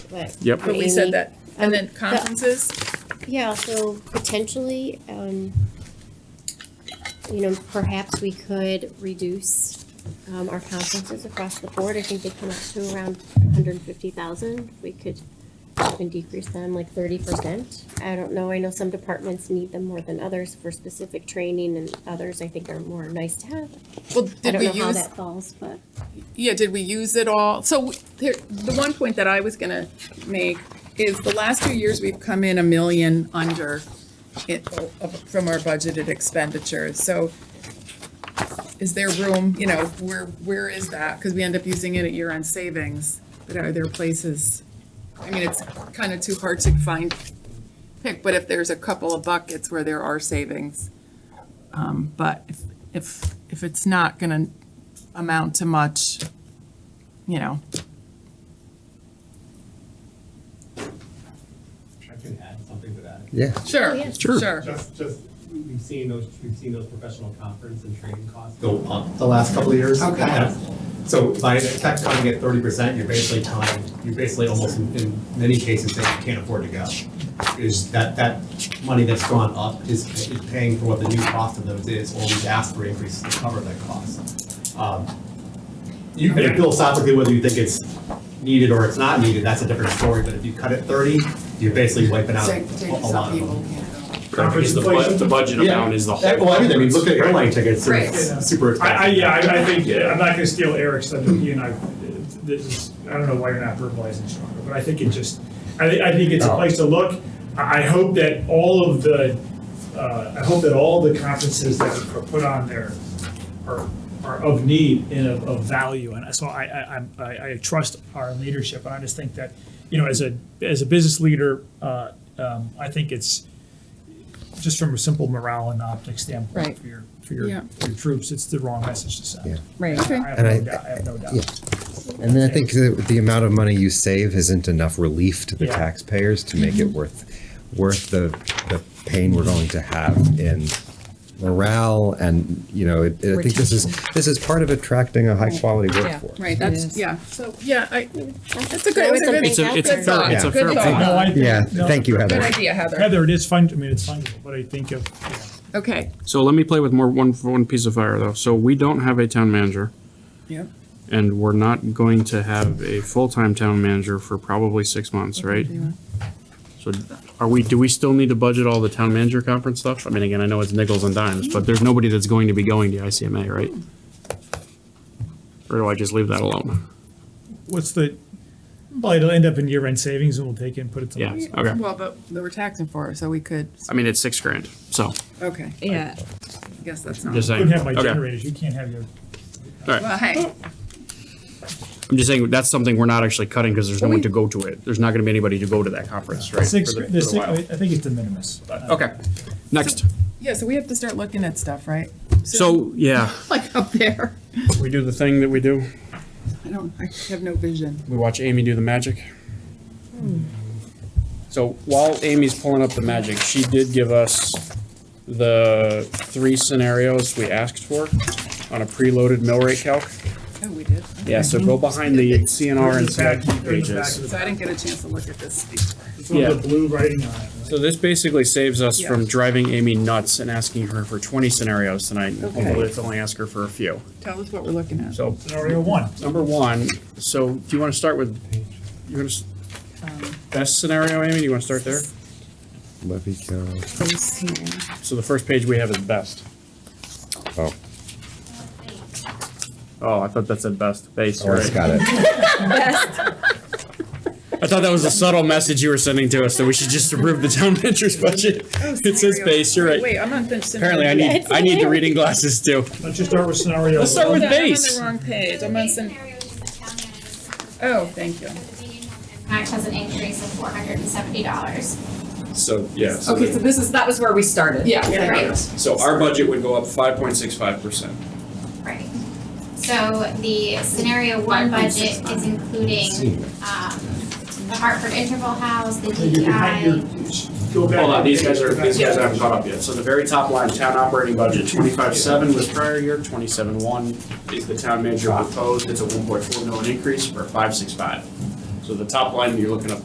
what? Yep. what But we Amy- said that. Um, And then the- conferences, Yeah, so potentially, um, you know, perhaps we could reduce, um, our conferences across the board. I think they come up to around hundred and fifty thousand. We could even decrease them like thirty percent. I don't know, I know some departments need them more than others for specific training and others I think are more nice to have. well, I did don't we know how use, that falls, but. yeah, did we use it all? So we- here, the one point that I was gonna make is the last two years, we've come in a million under it, of- from our budgeted expenditures. So is there room, you know, where, where is that? Because we end up using it at year-end savings, but are there places? I mean, it's kind of too hard to find, pick, but if there's a couple of buckets where there are savings. Um, But if- if, if it's not going to amount to much, you know, I could add something to that. Yeah. Oh, sure, yeah. Sure. sure. Just, just, we've seen those, we've seen those professional conference and training costs go up the last couple of years. Okay. Yeah. So by the tech coming at thirty percent, you're basically tying, you're basically almost in, in many cases saying you can't afford to go. Is that, that money that's gone up is is paying for what the new cost of those is, or we've asked for increases to cover that cost. Um, You can philosophically, whether you think it's needed or it's not needed, that's a different story, but if you cut it thirty, you're basically wiping out a Take- take a lot some of them. people, yeah. Because the bu- The budget amount is the whole. Yeah, Well, I mean, I mean, look at Right. airline tickets, they're Right. super I, expensive. I, yeah, I, I think, I'm not gonna steal Eric's thunder, he and I, this is, I don't know why you're not verbalizing stronger, but I think it just, I thi- I think it's a place to look. I, I hope that all of the, uh, I hope that all the conferences that are put on there are, are of need and of, of value, and so I, I, I'm- I, I trust our leadership, and I just think that, you know, as a, as a business leader, uh, um, I think it's, just from a simple morale and optics Right. standpoint for your, for your, Yeah. for your troops, it's the wrong message to send. Yeah. Right. I have And I- no doubt, I have no doubt. yeah. And then I think the, the amount of money you save isn't enough relief to the Yeah. taxpayers to make it worth, worth the, the pain we're going to have in morale and, you know, it- I think this is, this is part of attracting a high quality workforce. Right, that's, yeah, so, yeah, I, that's a good, That was it's a good, It's a, something it's a out fair, there. it's a Good fair thought. point. No, I think- Yeah, no. thank you, good Heather. idea, Heather. Heather, it is fun, I mean, it's fun, but I think of, you know, Okay. So let me play with more, one, one piece of fire though. So we don't have a town manager Yep. and we're not going to have a full-time town manager for probably six months, right? So are we, do we still need to budget all the town manager conference stuff? I mean, again, I know it's nickels and dimes, but there's nobody that's going to be going to ICMA, right? Or do I just leave that alone? what's the, well, it'll end up in year-end savings and we'll take it and put it to. Yeah, lease. okay. Well, but they were taxing for it, so we could, I mean, it's six grand, so, okay, I Yeah, guess that's not. just You saying. can have my Okay. generators, you can't have your, Well, hey, I'm just saying, that's something we're not actually cutting because there's no one to go to it. There's not gonna be anybody to go to that conference, right? six, for the- the for the six, while. I think it's de minimis. but, uh, Okay, next. yeah, so we have to start looking at stuff, right? So, yeah, Like up there, we do the thing that we do. I don't, I have no vision. We watch Amy do the magic. Hmm. So while Amy's pulling up the magic, she did give us the three scenarios we asked for on a preloaded mill rate calc. Oh, we did. Yeah, so go behind the CNR and It's back- CIP it's back pages. to So the- I didn't get a chance to look at this. before. It's one of yeah. the blue writing on it. So this basically saves us from Yeah. driving Amy nuts and asking her for twenty scenarios tonight. and Okay. Hopefully, it's only ask her for a few. Tell us what we're looking at. So Scenario one. number one, so do you want to start with, you want to, best scenario, Amy? Do you want to start there? Levy County. So the first page we have is best. Oh, Oh, I thought that said best base, Doris right? Oh, got it. I thought that was a subtle message you were sending to us that we should just approve the town manager's budget. It says base, you're Wait, right. I'm on the. Apparently, I need, I need the reading glasses too. Let's just start with scenario. Let's start one. with I'm on the base. wrong page, So I'm the on base some, scenario is the town manager's Oh, thank you. For the meeting room and Max has an increase of four hundred and seventy dollars. So, yeah. okay, so this is, that was where we started. Yeah. Right. So our budget would go up five point six five percent. Right. So the scenario one budget is including, um, the Hartford Interval House, the So you're behind your- DEI. Go back. Hold on, these guys are, these guys Yeah. haven't caught up yet. So the very top line, town operating budget, twenty-five seven was prior year, twenty-seven one is the town manager proposed. It's a one point four million increase for five six five. So the top line, you're looking at